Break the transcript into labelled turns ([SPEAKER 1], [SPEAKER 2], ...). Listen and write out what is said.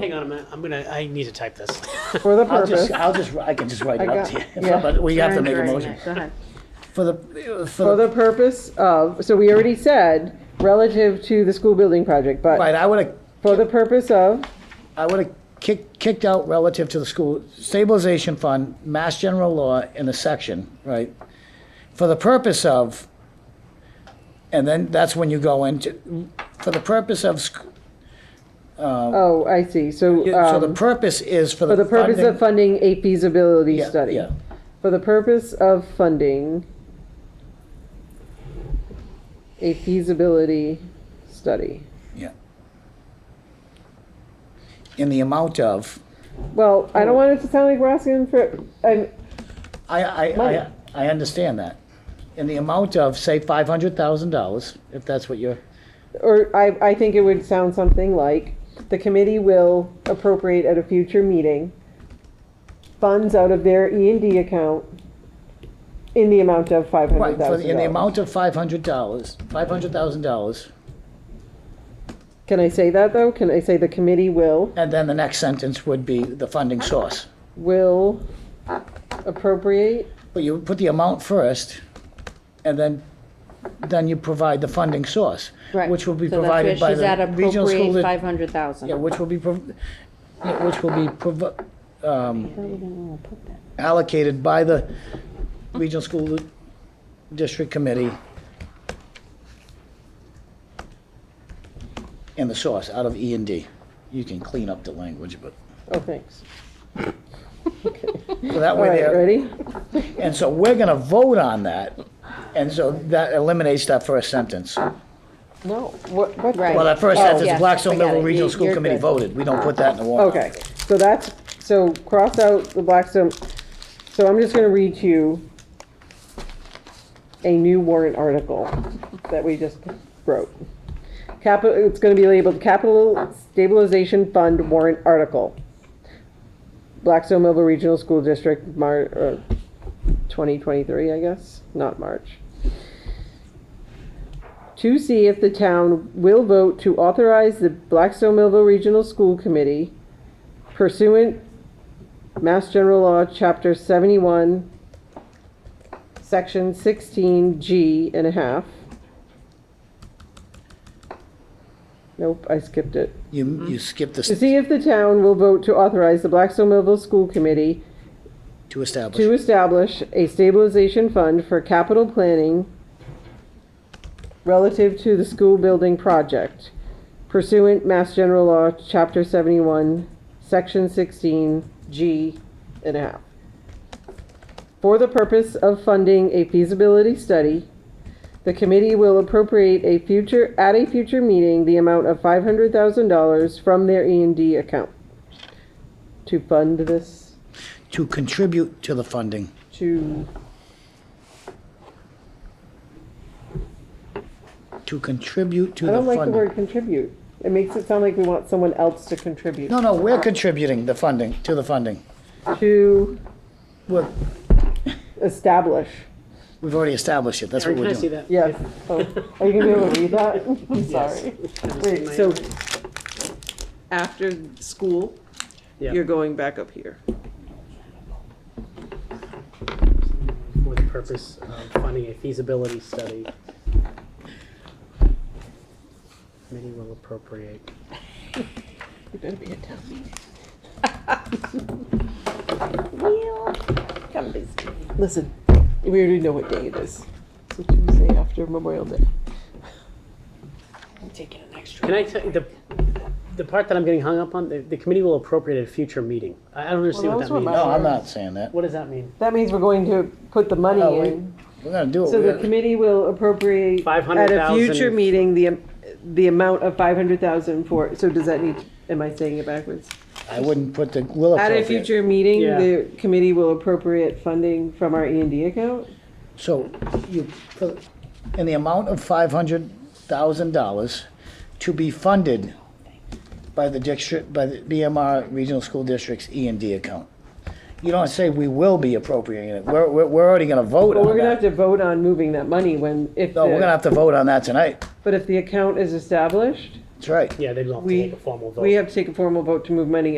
[SPEAKER 1] Hang on a minute, I'm gonna, I need to type this.
[SPEAKER 2] For the
[SPEAKER 3] I'll
[SPEAKER 2] purpose,
[SPEAKER 3] just, I'll just, I can just write
[SPEAKER 2] I
[SPEAKER 3] it up
[SPEAKER 2] got-
[SPEAKER 3] to you,
[SPEAKER 2] yeah.
[SPEAKER 3] but we have to make a
[SPEAKER 4] Sorry,
[SPEAKER 3] motion.
[SPEAKER 4] Go ahead.
[SPEAKER 3] For the, for
[SPEAKER 2] for
[SPEAKER 3] the,
[SPEAKER 2] the purpose of, so we already said, relative to the school building project, but
[SPEAKER 3] right, I would have,
[SPEAKER 2] for the purpose of,
[SPEAKER 3] I would have kicked, kicked out relative to the school stabilization fund, mass general law in a section, right? For the purpose of, and then that's when you go into, for the purpose of, sc-
[SPEAKER 2] oh, I see, so,
[SPEAKER 3] Um, so the
[SPEAKER 2] um,
[SPEAKER 3] purpose is for the.
[SPEAKER 2] for the purpose
[SPEAKER 3] funding-
[SPEAKER 2] of funding a feasibility
[SPEAKER 3] Yeah,
[SPEAKER 2] study.
[SPEAKER 3] yeah.
[SPEAKER 2] For the purpose of funding a feasibility study.
[SPEAKER 3] Yeah. In the amount of,
[SPEAKER 2] Well, I don't want it to sound like we're asking for, I'm,
[SPEAKER 3] I, I, I, I understand that. In the amount of, say, five hundred thousand dollars, if that's what you're,
[SPEAKER 2] Or I, I think it would sound something like, the committee will appropriate at a future meeting funds out of their E and D account in the amount of five
[SPEAKER 3] right,
[SPEAKER 2] hundred
[SPEAKER 3] for the- in the
[SPEAKER 2] thousand dollars.
[SPEAKER 3] amount of five hundred dollars, five hundred thousand dollars,
[SPEAKER 2] Can I say that though? Can I say the committee will,
[SPEAKER 3] and then the next sentence would be the funding source.
[SPEAKER 2] will appropriate?
[SPEAKER 3] But you put the amount first, and then, then you provide the funding source.
[SPEAKER 4] Right.
[SPEAKER 3] Which will be
[SPEAKER 4] So that's
[SPEAKER 3] provided
[SPEAKER 4] where
[SPEAKER 3] by
[SPEAKER 4] she's at
[SPEAKER 3] the regional school.
[SPEAKER 4] appropriate
[SPEAKER 3] di-
[SPEAKER 4] five hundred thousand.
[SPEAKER 3] Yeah, which will be, prov- yeah, which will be provi- um, allocated by the Regional School District Committee and the source out of E and D. You can clean up the language, but,
[SPEAKER 2] Oh, thanks.
[SPEAKER 3] so that
[SPEAKER 2] All
[SPEAKER 3] way
[SPEAKER 2] right,
[SPEAKER 3] there.
[SPEAKER 2] ready?
[SPEAKER 3] And so we're gonna vote on that, and so that eliminates that first sentence.
[SPEAKER 2] No, what, what?
[SPEAKER 4] Right.
[SPEAKER 3] Well, that first
[SPEAKER 2] Oh,
[SPEAKER 3] sentence,
[SPEAKER 4] yes,
[SPEAKER 3] Blackstone
[SPEAKER 4] I got
[SPEAKER 3] Millville
[SPEAKER 4] it.
[SPEAKER 3] Regional
[SPEAKER 4] You-
[SPEAKER 3] School
[SPEAKER 4] you're
[SPEAKER 3] Committee
[SPEAKER 4] good.
[SPEAKER 3] voted. We don't put that in the warrant.
[SPEAKER 2] Okay, so that's, so cross out the Blackstone, so I'm just gonna read to you a new warrant article that we just wrote. Capital, it's gonna be labeled Capital Stabilization Fund Warrant Article. Blackstone Millville Regional School District, Mar, uh, twenty twenty-three, I guess, not March to see if the town will vote to authorize the Blackstone Millville Regional School Committee pursuant Mass General Law, Chapter seventy-one, Section sixteen G and a half. Nope, I skipped it.
[SPEAKER 3] You, you skip this
[SPEAKER 2] To see if the town will vote to authorize the Blackstone Millville School Committee
[SPEAKER 3] to establish.
[SPEAKER 2] to establish a stabilization fund for capital planning relative to the school building project pursuant Mass General Law, Chapter 71, Section 16, G and a half. For the purpose of funding a feasibility study, the committee will appropriate a future, at a future meeting, the amount of $500,000 from their E and D account to fund this,
[SPEAKER 3] to contribute to the funding.
[SPEAKER 2] to
[SPEAKER 3] To contribute
[SPEAKER 2] I
[SPEAKER 3] to the
[SPEAKER 2] don't
[SPEAKER 3] funding.
[SPEAKER 2] like the word contribute. It makes it sound like we want someone else to contribute.
[SPEAKER 3] No, no, we're contributing the funding, to the funding.
[SPEAKER 2] To
[SPEAKER 3] We're,
[SPEAKER 2] establish.
[SPEAKER 3] we've already established it, that's what
[SPEAKER 1] Aaron, can I
[SPEAKER 3] we're
[SPEAKER 1] see
[SPEAKER 3] doing.
[SPEAKER 1] that?
[SPEAKER 2] Yes. Oh, Are you gonna be able to read that? I'm sorry. Wait, so after school,
[SPEAKER 1] Yeah.
[SPEAKER 2] you're going back up here.
[SPEAKER 1] For the purpose of funding a feasibility study. Committee will appropriate.
[SPEAKER 2] You better be in town.
[SPEAKER 4] Come visit.
[SPEAKER 2] Listen, we already know what day it is. So Tuesday after Memorial Day.
[SPEAKER 4] I'm taking an extra.
[SPEAKER 1] Can I tell, the, the part that I'm getting hung up on, the, the committee will appropriate at a future meeting. I I don't understand
[SPEAKER 2] Well,
[SPEAKER 1] what
[SPEAKER 2] that
[SPEAKER 1] that
[SPEAKER 2] was what
[SPEAKER 1] means.
[SPEAKER 3] No, I'm not saying that.
[SPEAKER 1] What does that mean?
[SPEAKER 2] That means we're going to put the money
[SPEAKER 3] No, we-
[SPEAKER 2] in.
[SPEAKER 3] We're gonna do it.
[SPEAKER 2] So the
[SPEAKER 3] We're-
[SPEAKER 2] committee will appropriate. At a
[SPEAKER 1] 500,000.
[SPEAKER 2] future meeting, the, am- the amount of five hundred thousand for, so does that need, am I saying it backwards?
[SPEAKER 3] I wouldn't put the, will
[SPEAKER 2] At a
[SPEAKER 3] appropriate.
[SPEAKER 2] future meeting,
[SPEAKER 1] Yeah.
[SPEAKER 2] the committee will appropriate funding from our E and D account?
[SPEAKER 3] So you, put in the amount of five hundred thousand dollars to be funded by the district, by the BMR Regional School District's E and D account. You don't say we will be appropriating it. We're, we're, we're already gonna vote
[SPEAKER 2] But we're
[SPEAKER 3] on
[SPEAKER 2] gonna have
[SPEAKER 3] that.
[SPEAKER 2] to vote on moving that money when, if,
[SPEAKER 3] No, we're gonna
[SPEAKER 2] the-
[SPEAKER 3] have to vote on that tonight.
[SPEAKER 2] but if the account is established,
[SPEAKER 3] That's right.
[SPEAKER 1] Yeah, they'd have to
[SPEAKER 2] We-
[SPEAKER 1] take a formal vote.
[SPEAKER 2] We have to take a formal vote to move money